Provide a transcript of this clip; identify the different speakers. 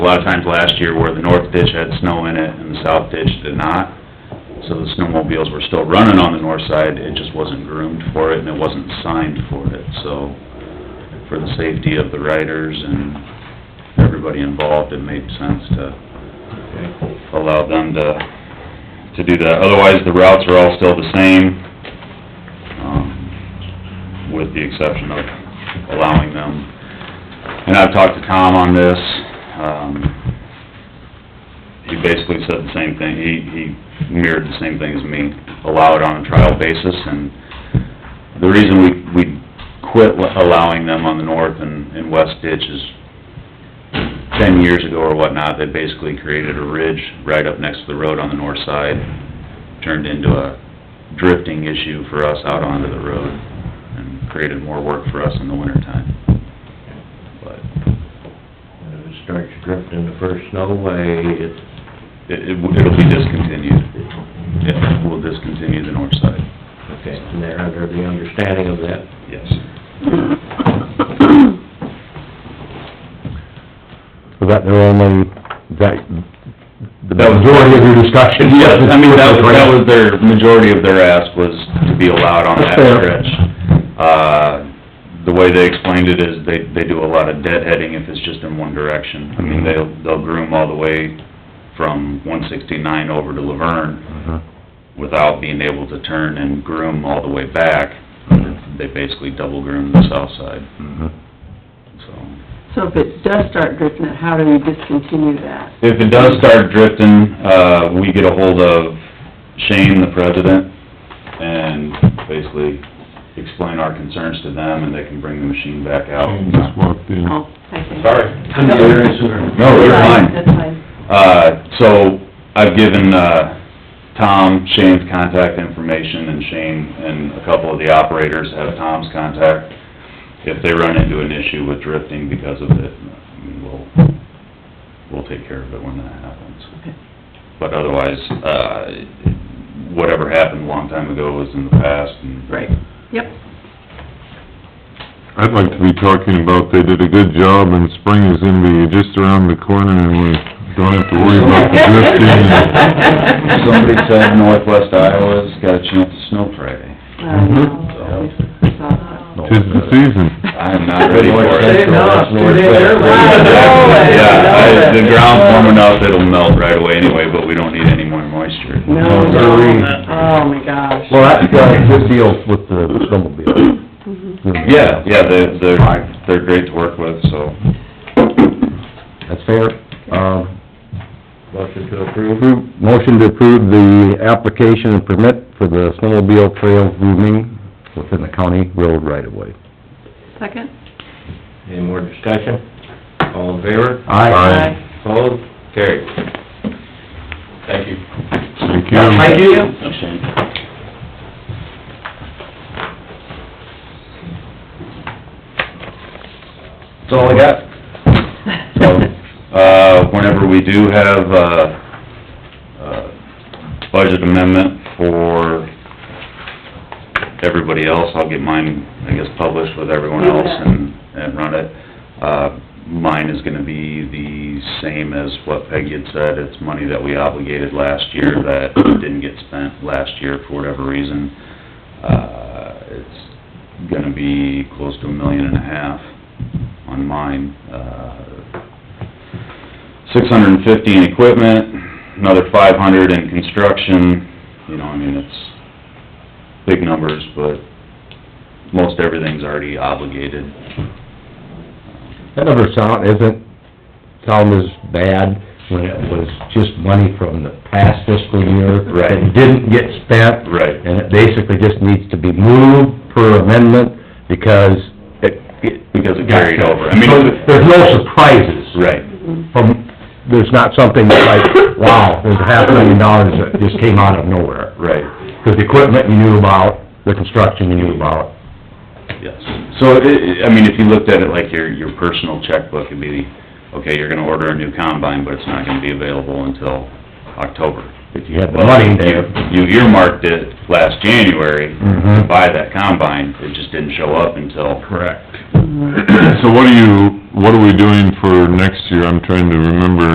Speaker 1: A lot of times last year where the north ditch had snow in it and the south ditch did not, so the snowmobiles were still running on the north side, it just wasn't groomed for it and it wasn't signed for it, so for the safety of the riders and everybody involved, it made sense to allow them to, to do that. Otherwise, the routes are all still the same, um, with the exception of allowing them. And I've talked to Tom on this, um, he basically said the same thing, he, he mirrored the same thing as me, allow it on a trial basis, and the reason we, we quit allowing them on the north and, and west ditch is ten years ago or whatnot, they basically created a ridge right up next to the road on the north side, turned into a drifting issue for us out onto the road, and created more work for us in the wintertime. But
Speaker 2: If it starts drifting the first snow away, it,
Speaker 1: it, it- it'll be discontinued. Yeah, we'll discontinue the north side.
Speaker 2: okay, and they're under the understanding of that.
Speaker 1: Yes.
Speaker 3: Was that their only, that, the
Speaker 1: That was-
Speaker 3: majority of your discussion?
Speaker 1: Yes, I mean, that was, that
Speaker 3: Grant?
Speaker 1: was their, majority of their ask was to be allowed on that
Speaker 3: That's fair.
Speaker 1: stretch. Uh, the way they explained it is they, they do a lot of deadheading if it's just in one direction. I
Speaker 3: Mm-hmm.
Speaker 1: mean, they'll, they'll groom all the way from one sixty-nine over to Laverne
Speaker 2: Uh-huh.
Speaker 3: Mhm.
Speaker 1: without being able to turn and groom all the way back. They basically double groom the south side,
Speaker 3: Mhm.
Speaker 1: so.
Speaker 4: So if it does start drifting, how do we discontinue that?
Speaker 1: If it does start drifting, uh, we get a hold of Shane, the president, and basically explain our concerns to them, and they can bring the machine back out.
Speaker 5: Shane just walked
Speaker 3: Hmm.
Speaker 5: in.
Speaker 4: Oh, I see.
Speaker 1: Sorry.
Speaker 2: Come to your answer.
Speaker 1: No, you're
Speaker 4: Right,
Speaker 1: fine.
Speaker 4: That's fine.
Speaker 1: Uh, so, I've given, uh, Tom Shane's contact information, and Shane and a couple of the operators have Tom's contact. If they run into an issue with drifting because of it, I mean, we'll, we'll take care of it when that happens.
Speaker 4: Okay.
Speaker 1: But otherwise, uh, whatever happened a long time ago was in the past, and...
Speaker 4: Right, yep,
Speaker 5: I'd like to be talking about they did a good job and spring is gonna be just around the corner and we don't have to worry about the drifting. and-
Speaker 1: Somebody said northwest Iowa's got a chance of snow Friday.
Speaker 4: uh,
Speaker 1: Mm-hmm.
Speaker 4: no, we saw that.
Speaker 3: No.
Speaker 5: Tis the
Speaker 1: Uh,
Speaker 5: season.
Speaker 1: I am not ready for it.
Speaker 2: North Central, that's North Central.
Speaker 1: Yeah, I- the ground's warm enough, it'll melt right away anyway, but we don't need any more moisture.
Speaker 4: No, no,
Speaker 3: Early.
Speaker 4: oh my gosh.
Speaker 3: Well, that's uh, good deal with the snowmobile.
Speaker 4: Mhm.
Speaker 1: Yeah, yeah, they're, they're, they're great to work with, so.
Speaker 3: That's fair. Um,
Speaker 2: Motion to approve.
Speaker 3: approve- motion to approve the application and permit for the snowmobile trail grooming within the county road right of way.
Speaker 4: Second?
Speaker 2: Any more discussion? All in favor?
Speaker 4: Aye.
Speaker 2: Opposed? Carried. Thank you.
Speaker 5: Thank
Speaker 2: Thank
Speaker 5: you.
Speaker 2: you.
Speaker 1: That's all I got. So, uh, whenever we do have, uh, uh, budget amendment for everybody else, I'll get mine, I guess, published with everyone else and, and run it. Uh, mine is gonna be the same as what Peggy had said, it's money that we obligated last year that didn't get spent last year for whatever reason. Uh, it's gonna be close to a million and a half on mine. Uh, Six hundred and fifty in equipment, another five hundred in construction, you know, I mean, it's big numbers, but most everything's already obligated.
Speaker 3: That number sound, isn't, sound as bad when it was just money from the past fiscal year.
Speaker 1: Right.
Speaker 3: That didn't get spent.
Speaker 1: Right.
Speaker 3: And it basically just needs to be moved per amendment because it...
Speaker 1: Because it carried over. I mean-
Speaker 3: So There's no surprises.
Speaker 1: Right.
Speaker 3: From, there's not something that's like, wow, there's a half million dollars that just came out of nowhere.
Speaker 1: Right.
Speaker 3: Because the equipment you knew about, the construction you knew about.
Speaker 1: Yes. So, it- it- I mean, if you looked at it like your, your personal checkbook, it'd be, okay, you're gonna order a new combine, but it's not gonna be available until October.
Speaker 3: If you had the money there.
Speaker 1: You earmarked it last January to
Speaker 3: Mhm.
Speaker 1: buy that combine, it just didn't show up until
Speaker 3: Correct.
Speaker 5: So what do you what are we doing for next year? I'm trying to remember